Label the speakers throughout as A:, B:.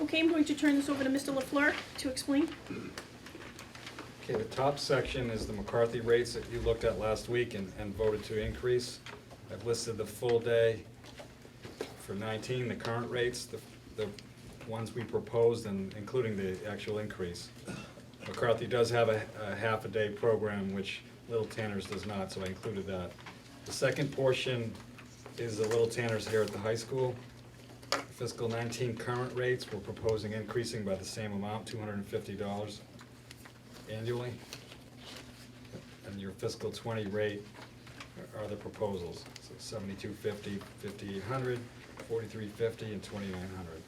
A: Okay, I'm going to turn this over to Mr. LaFleur to explain.
B: Okay, the top section is the McCarthy rates that you looked at last week and, and voted to increase. I've listed the full day for nineteen, the current rates, the, the ones we proposed and including the actual increase. McCarthy does have a, a half a day program, which Little Tanners does not, so I included that. The second portion is the Little Tanners here at the high school. Fiscal nineteen current rates, we're proposing increasing by the same amount, two hundred and fifty dollars annually. And your fiscal twenty rate are- are the proposals, so seventy-two fifty, fifty-eight hundred, forty-three fifty, and twenty-nine hundred.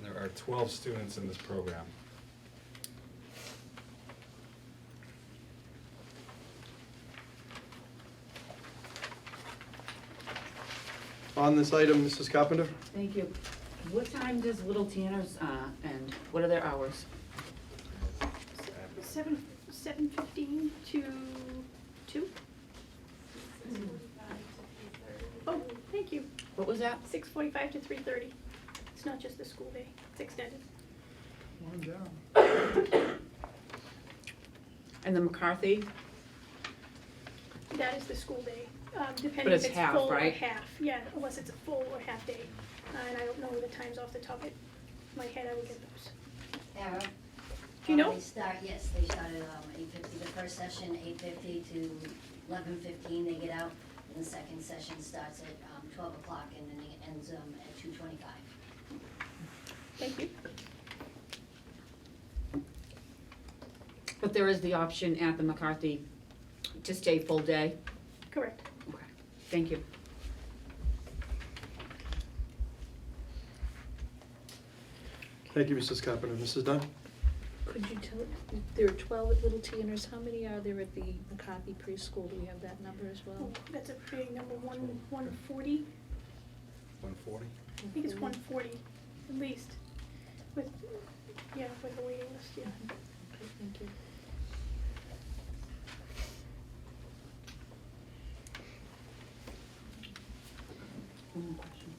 B: And there are twelve students in this program.
C: On this item, Mrs. Carpenter?
D: Thank you. What time does Little Tanner's uh, end? What are their hours?
A: Seven, seven fifteen to two? Oh, thank you.
D: What was that?
A: Six forty-five to three thirty. It's not just the school day, it's extended.
D: And the McCarthy?
A: That is the school day, um, depending
D: But
A: if
D: it's
A: it's
D: half,
A: full or
D: right?
A: half, yeah, unless it's a full or half day. Uh, And I don't know the times off the top of my head, I would get those.
E: Tara?
A: Do you know?
E: Um, They start, yes, they start at um, eight fifty, the first session, eight fifty to eleven fifteen, they get out. And the second session starts at um, twelve o'clock and then it ends um, at two twenty-five.
A: Thank you.
D: But there is the option at the McCarthy to stay full day?
A: Correct.
D: Okay, thank you.
C: Thank you, Mrs. Carpenter. Mrs. Dunn?
F: Could you tell, there are twelve at Little Tanners, how many are there at the McCarthy preschool, do we have that number as well?
A: Oh, That's a big number, one, one forty,
B: One forty?
A: I think it's one forty, at least, with, yeah, with the waiting list, yeah.
F: Okay, thank you.
D: One more question.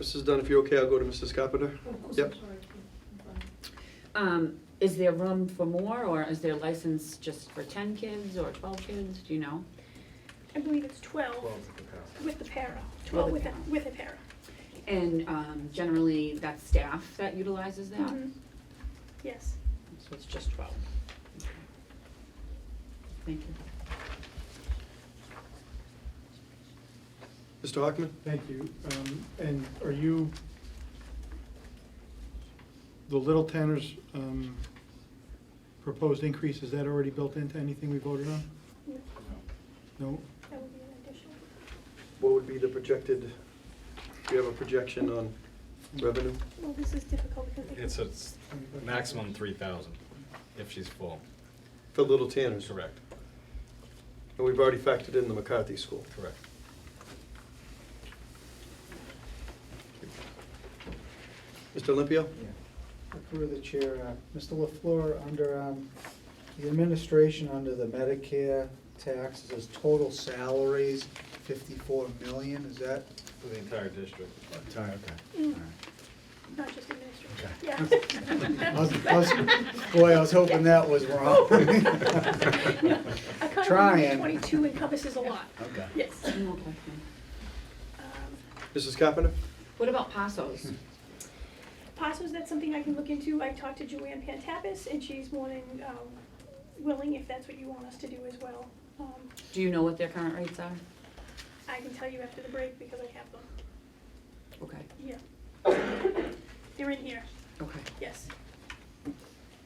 C: Mrs. Dunn, if you're okay, I'll go to Mrs. Carpenter. Yep.
D: Um, Is there room for more, or is their license just for 10 kids or 12 kids? Do you know?
A: I believe it's twelve
B: Twelve is the capacity.
A: with the para,
D: Twelve
A: twelve with a,
D: with
A: with a para.
D: And um, generally, that's staff that utilizes that?
A: Mhm. Yes.
D: So it's just 12? Okay. Thank you.
C: Mr. Hockman?
G: Thank you. Um, And are you, the Little Tanner's um, proposed increase, is that already built into anything we voted on?
A: No,
G: No?
A: That would be an additional.
C: What would be the projected, do you have a projection on revenue?
A: Well, this is difficult because they.
B: It's a s- maximum three thousand if she's full.
C: For Little Tanners?
B: Correct,
C: And we've already factored in the McCarthy School.
B: correct.
C: Mr. Olympio?
H: Through the chair, uh, Mr. LaFleur, under um, the administration, under the Medicare taxes, is total salaries fifty-four million, is that?
B: For the entire district.
H: Entire,
A: Mm,
H: okay.
A: Not just administration, yeah.
H: I was- I was- Boy, I was hoping that was wrong.
A: No, Account
H: Trying.
A: twenty-two encompasses a lot,
H: Okay.
A: yes.
D: One more question.
A: Um,
C: Mrs. Carpenter?
D: What about Passos?
A: Passos, that's something I can look into. I talked to Joanne Pantapis, and she's more than um, willing, if that's what you want us to do as well. Um,
D: Do you know what their current rates are?
A: I can tell you after the break because I have them.
D: Okay,
A: Yeah. They're in here,
D: okay.
A: yes.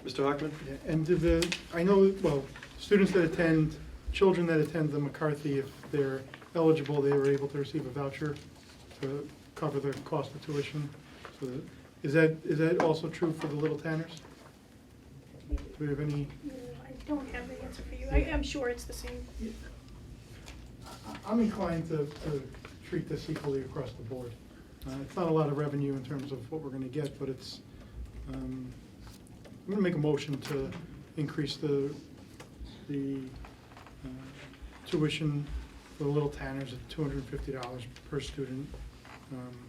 C: Mr. Hockman?
G: Yeah, And do the, I know, well, students that attend, children that attend the McCarthy, if they're eligible, they were able to receive a voucher to cover the cost of tuition. So that- Is that, is that also true for the Little Tanners?
A: Mm,
G: Do we have any?
A: I don't have the answer for you. I- I'm sure it's the same.
G: I- I'm inclined to, to treat this equally across the board. Uh, It's not a lot of revenue in terms of what we're gonna get, but it's, um, I'm gonna make a motion to increase the, the uh, tuition for the Little Tanners at two hundred and fifty dollars per student, um,